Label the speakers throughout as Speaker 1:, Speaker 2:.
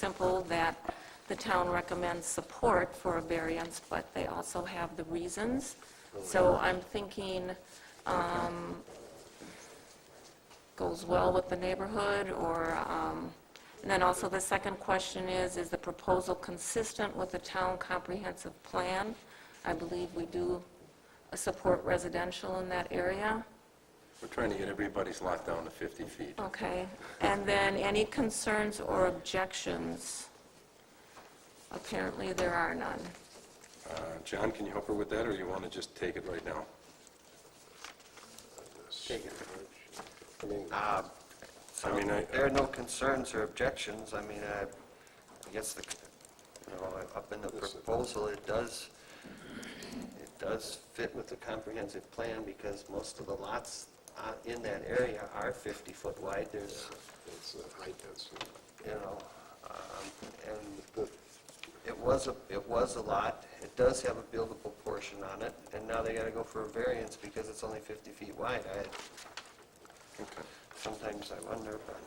Speaker 1: simple that the town recommends support for a variance, but they also have the reasons. So I'm thinking um, goes well with the neighborhood, or, um, and then also the second question is, is the proposal consistent with the town comprehensive plan? I believe we do support residential in that area.
Speaker 2: We're trying to get everybody's lot down to 50 feet.
Speaker 1: Okay, and then any concerns or objections? Apparently, there are none.
Speaker 2: Uh, John, can you help her with that, or you want to just take it right now?
Speaker 3: Take it.
Speaker 2: I mean,
Speaker 3: Uh,
Speaker 2: I mean, I-
Speaker 3: There are no concerns or objections. I mean, I I guess the, you know, up in the proposal, it does, it does fit with the comprehensive plan because most of the lots uh, in that area are 50-foot wide. There's,
Speaker 4: It's a high density.
Speaker 3: you know, um, and it was, a it was a lot. It does have a buildable portion on it, and now they got to go for a variance because it's only 50 feet wide. I,
Speaker 2: Okay.
Speaker 3: sometimes I wonder, but...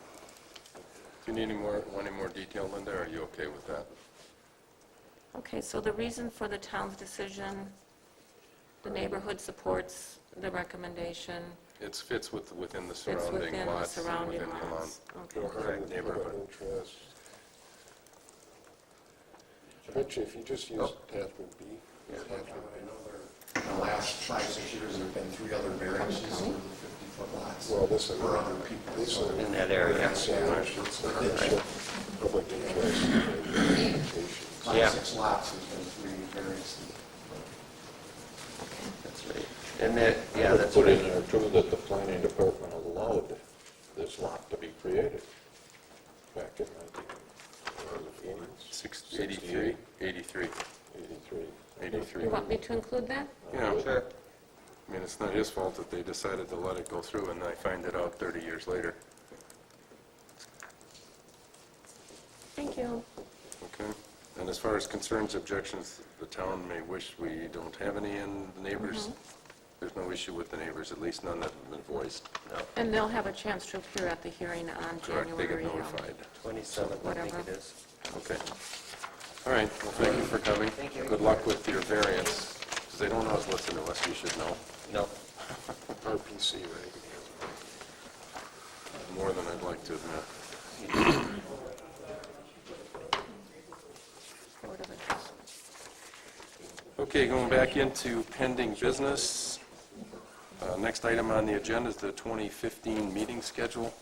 Speaker 2: Do you need any more, want any more detail, Linda, or are you okay with that?
Speaker 1: Okay, so the reason for the town's decision, the neighborhood supports the recommendation,
Speaker 2: It fits with, within the
Speaker 1: it's
Speaker 2: surrounding
Speaker 1: within the
Speaker 2: lots. and
Speaker 1: surrounding
Speaker 2: within the allowance.
Speaker 1: laws. Okay.
Speaker 4: No harm, no
Speaker 2: neighborhood.
Speaker 4: interest. I bet you if you just use
Speaker 5: Oh.
Speaker 4: attachment B, attachment
Speaker 6: I know there, in the last five, six years, there've been three other variances for the 50-foot lots.
Speaker 4: Well, this is-
Speaker 6: For other people.
Speaker 4: this is-
Speaker 3: In that area.
Speaker 4: Yeah, it's not actually public interest applications.
Speaker 3: Yeah.
Speaker 6: Five, six lots, there's been three variances.
Speaker 3: That's right. And that, yeah,
Speaker 5: I would
Speaker 3: that's
Speaker 5: Put in
Speaker 3: right.
Speaker 5: there too that the planning department allowed this lot to be created back in 1983.
Speaker 2: Six- 83, 83,
Speaker 5: Uh,
Speaker 2: 83.
Speaker 1: You want me to include that?
Speaker 2: Yeah,
Speaker 3: Sure.
Speaker 2: I mean, it's not his fault that they decided to let it go through, and I find it out 30 years later.
Speaker 1: Thank you.
Speaker 2: Okay. And as far as concerns, objections, the town may wish we don't have any, and the
Speaker 3: Mm-hmm.
Speaker 2: neighbors, there's no issue with the neighbors, at least none that have been voiced.
Speaker 1: And they'll have a chance to appear at the hearing on
Speaker 2: Correct, they get
Speaker 1: January um,
Speaker 2: notified.
Speaker 3: 27, I think
Speaker 1: Whatever.
Speaker 3: it is.
Speaker 2: Okay. All right, well, thank you for coming.
Speaker 3: Thank you.
Speaker 2: Good luck with your variance, because they don't always listen to us, you should know,
Speaker 3: No.
Speaker 4: RPC, right?
Speaker 2: more than I'd like to admit.
Speaker 1: Board of Adjustment.
Speaker 2: Okay, going back into pending business. Uh, Next item on the agenda is the 2015 meeting schedule.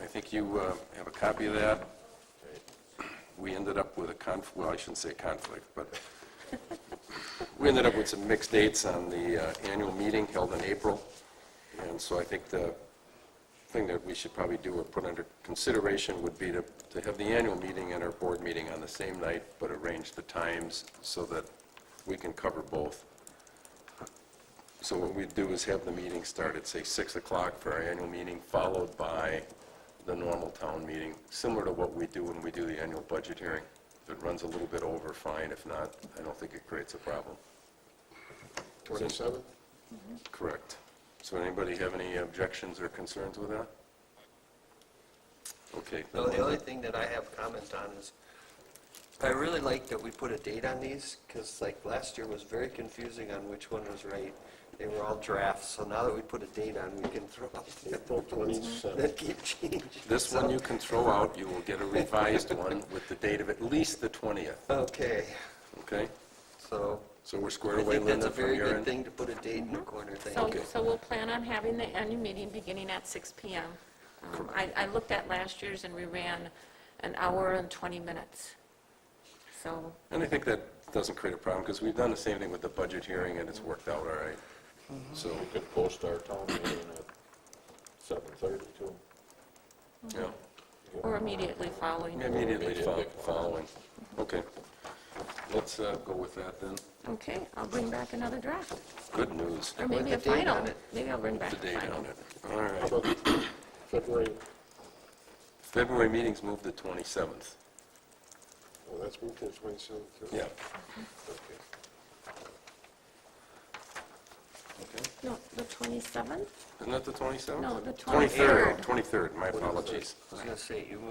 Speaker 2: I think you uh, have a copy of that. We ended up with a conf, well, I shouldn't say conflict, but we ended up with some mixed dates on the uh, annual meeting held in April. And so I think the thing that we should probably do or put under consideration would be to, to have the annual meeting and our board meeting on the same night, but arrange the times so that we can cover both. So what we do is have the meeting start at, say, 6 o'clock for our annual meeting, followed by the normal town meeting, similar to what we do when we do the annual budget hearing. If it runs a little bit over, fine. If not, I don't think it creates a problem.
Speaker 4: 27?
Speaker 2: Correct. So anybody have any objections or concerns with that? Okay.
Speaker 3: No, the only thing that I have comment on is, I really like that we put a date on these, because like last year was very confusing on which one was right. They were all drafts, so now that we put a date on, we can throw out the
Speaker 4: April 27.
Speaker 3: that keep changing.
Speaker 2: This one you can throw
Speaker 3: uh,
Speaker 2: out, you will get a revised one with the date of at least the 20th,
Speaker 3: Okay,
Speaker 2: okay?
Speaker 3: so
Speaker 2: So we're squared
Speaker 3: I
Speaker 2: away,
Speaker 3: think that's a
Speaker 2: Linda,
Speaker 3: very
Speaker 2: from your
Speaker 3: good
Speaker 2: end?
Speaker 3: thing to put a date in the corner. Thank
Speaker 1: So,
Speaker 3: you.
Speaker 1: so we'll plan on having the annual meeting beginning at 6 PM. Um, I, I looked at last year's and we ran an hour and 20 minutes. So,
Speaker 2: And I think that doesn't create a problem, because we've done the same thing with the budget hearing, and it's worked out all right.
Speaker 3: Mm-hmm.
Speaker 2: So,
Speaker 5: We could post our town meeting at 7:30 too.
Speaker 2: yeah,
Speaker 1: or immediately following.
Speaker 2: immediately fol-
Speaker 5: Immediately.
Speaker 2: following. Okay. Let's uh, go with that then.
Speaker 1: Okay, I'll bring back another draft,
Speaker 2: Good news,
Speaker 1: or
Speaker 3: want
Speaker 1: maybe
Speaker 3: the
Speaker 1: a
Speaker 3: date on
Speaker 1: final.
Speaker 3: it.
Speaker 1: Maybe I'll bring back
Speaker 2: the
Speaker 1: a
Speaker 2: date
Speaker 1: final.
Speaker 2: on it. All right.
Speaker 4: How about February?
Speaker 2: February meeting's moved to 27th.
Speaker 4: Oh, that's moved to 27th? too?
Speaker 2: Yeah.
Speaker 4: Okay.
Speaker 2: okay?
Speaker 1: No, the 27th?
Speaker 2: Isn't that the 27th?
Speaker 1: No, the
Speaker 2: 23rd.
Speaker 1: 23rd.
Speaker 2: 23rd, my apologies.
Speaker 3: I was gonna say, you moved